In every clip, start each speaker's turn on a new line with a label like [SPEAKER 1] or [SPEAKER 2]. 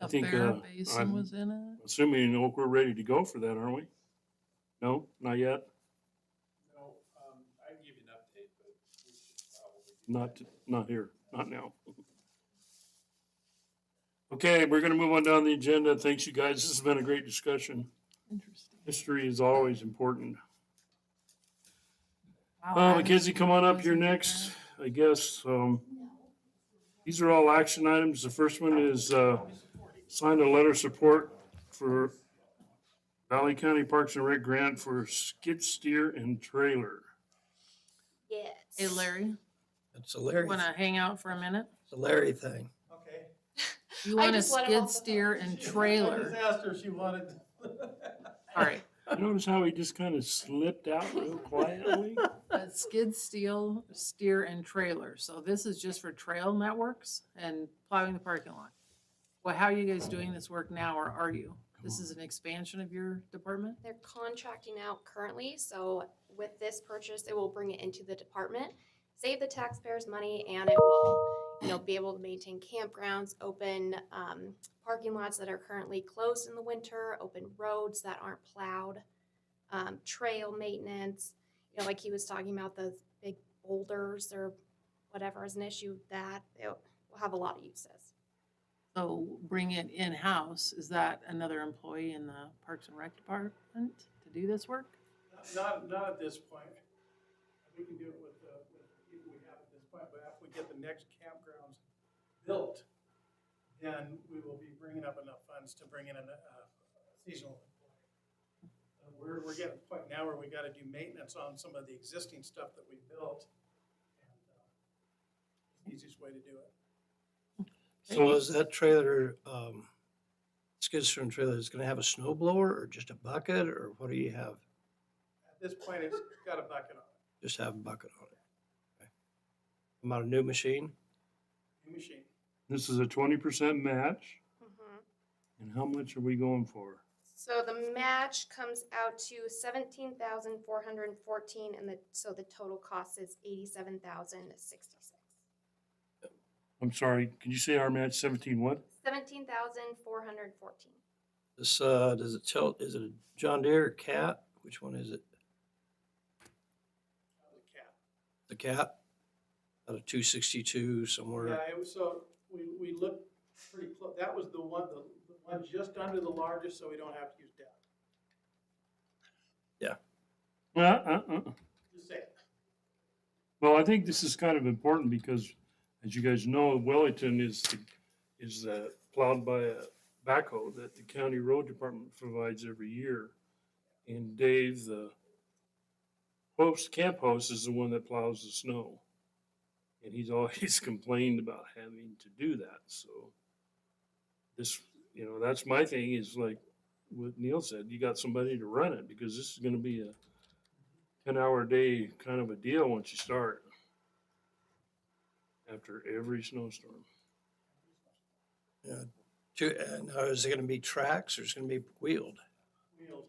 [SPEAKER 1] I
[SPEAKER 2] The
[SPEAKER 1] think,
[SPEAKER 2] Farrah
[SPEAKER 1] uh,
[SPEAKER 2] Basin
[SPEAKER 1] I'm-
[SPEAKER 2] was in it.
[SPEAKER 1] Assuming, you know, we're ready to go for that, aren't we? No, not yet?
[SPEAKER 3] No, um, I can give you an update, but we should probably. do
[SPEAKER 1] Not,
[SPEAKER 3] that.
[SPEAKER 1] not here, not now. Okay, we're gonna move on down the agenda. Thanks, you guys. This has been a great discussion.
[SPEAKER 2] Interesting.
[SPEAKER 1] History is always important.
[SPEAKER 2] Wow,
[SPEAKER 1] Uh,
[SPEAKER 2] I
[SPEAKER 1] Mackenzie, come on up here
[SPEAKER 2] wasn't
[SPEAKER 1] next, I guess. Um, these are all action items. The first one is, uh, signed a letter of support for Valley County Parks and Rec grant for skid steer and trailer.
[SPEAKER 4] Yes.
[SPEAKER 2] Hey Larry,
[SPEAKER 5] It's a Larry,
[SPEAKER 2] wanna hang out for a minute?
[SPEAKER 5] it's a Larry thing.
[SPEAKER 3] Okay.
[SPEAKER 2] You
[SPEAKER 4] I
[SPEAKER 2] want a
[SPEAKER 4] just let him
[SPEAKER 2] skid
[SPEAKER 4] off the hook.
[SPEAKER 2] steer and
[SPEAKER 3] I just
[SPEAKER 2] trailer.
[SPEAKER 3] asked her if she wanted.
[SPEAKER 2] All right,
[SPEAKER 1] Notice how he just kind of slipped out real quietly?
[SPEAKER 2] a skid steel, steer and trailer. So this is just for trail networks and plowing the parking lot. Well, how are you guys doing this work now or are you? This is an expansion of your department?
[SPEAKER 4] They're contracting out currently, so with this purchase, it will bring it into the department, save the taxpayers money, and it will, you know, be able to maintain campgrounds, open um, parking lots that are currently closed in the winter, open roads that aren't plowed, um, trail maintenance. You know, like he was talking about those big boulders or whatever is an issue that it will have a lot of uses.
[SPEAKER 2] So bring it in-house, is that another employee in the Parks and Rec Department to do this work?
[SPEAKER 3] Not, not at this point. We can do it with the, with the people we have at this point, but after we get the next campgrounds built, then we will be bringing up enough funds to bring in a a seasonal employee. Uh, We're, we're getting to the point now where we gotta do maintenance on some of the existing stuff that we built. and uh, Easiest way to do it.
[SPEAKER 5] So is that trailer, um, skid steer and trailer is gonna have a snow blower or just a bucket or what do you have?
[SPEAKER 3] At this point, it's got a bucket on it,
[SPEAKER 5] Just have a bucket on it. Okay. About a new machine?
[SPEAKER 3] new machine.
[SPEAKER 1] This is a twenty percent match,
[SPEAKER 4] Mm-hmm.
[SPEAKER 1] and how much are we going for?
[SPEAKER 4] So the match comes out to seventeen thousand four hundred and fourteen, and the, so the total cost is eighty-seven thousand sixty-six.
[SPEAKER 1] I'm sorry, can you say our match seventeen what?
[SPEAKER 4] Seventeen thousand four hundred and fourteen.
[SPEAKER 5] This, uh, does it tilt, is it a John Deere or cat? Which one is it?
[SPEAKER 3] uh, the cap.
[SPEAKER 5] The cat? Out of two sixty-two somewhere?
[SPEAKER 3] Yeah, it was, so we, we looked pretty close, that was the one, the the one just under the largest, so we don't have to use depth.
[SPEAKER 1] Uh, uh, uh.
[SPEAKER 3] Just say,
[SPEAKER 1] Well, I think this is kind of important because, as you guys know, Wellington is, the- is uh, plowed by a backhoe that the county road department provides every year. And Dave, the host, camp host is the one that plows the snow. And he's always complained about having to do that, so. This, you know, that's my thing is like what Neil said, you got somebody to run it because this is gonna be a ten hour a day kind of a deal once you start. After every snowstorm.
[SPEAKER 5] Two, and uh, is it gonna be tracks or is it gonna be wheeled?
[SPEAKER 3] wheels,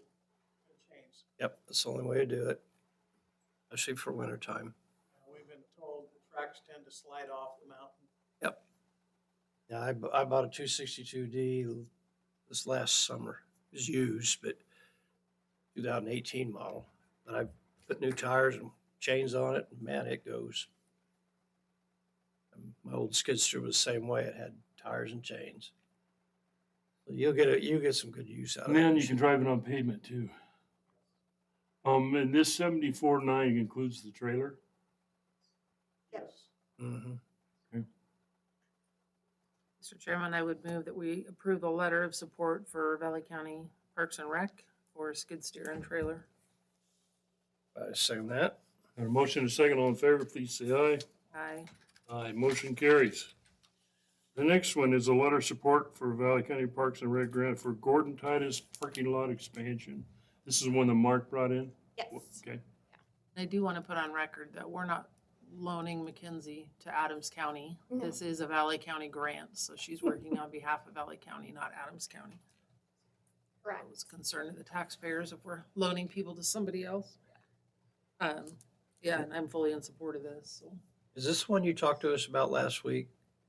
[SPEAKER 3] and chains.
[SPEAKER 5] Yep, that's the only way to do it. Especially for winter time.
[SPEAKER 3] Uh, We've been told the tracks tend to slide off the mountain.
[SPEAKER 5] Yeah, I, bu- I bought a two sixty-two D this last summer. It was used, but two thousand eighteen model. But I put new tires and chains on it, and man, it goes. And My old skidster was the same way. It had tires and chains. So you'll get it. You'll get some good use out
[SPEAKER 1] And
[SPEAKER 5] of it.
[SPEAKER 1] then you can drive it on pavement too. Um, and this seventy-four nine includes the trailer.
[SPEAKER 3] Yes.
[SPEAKER 5] Mm-hmm.
[SPEAKER 2] Mr. Chairman, I would move that we approve the letter of support for Valley County Parks and Rec for skid steer and trailer.
[SPEAKER 5] I assume that.
[SPEAKER 1] Got a motion and a second, all in favor, please say aye.
[SPEAKER 2] Aye.
[SPEAKER 1] Aye, motion carries. The next one is a letter of support for Valley County Parks and Rec grant for Gordon Titus parking lot expansion. This is one that Mark brought in?
[SPEAKER 4] Yes.
[SPEAKER 1] Okay.
[SPEAKER 2] And I do want to put on record that we're not loaning McKenzie to Adams County.
[SPEAKER 4] No.
[SPEAKER 2] This is a Valley County grant, so she's working on behalf of Valley County, not Adams County. I
[SPEAKER 4] Correct.
[SPEAKER 2] was concerned to the taxpayers if we're loaning people to somebody else. Um, yeah, and I'm fully in support of this, so.
[SPEAKER 5] Is this one you talked to us about last week?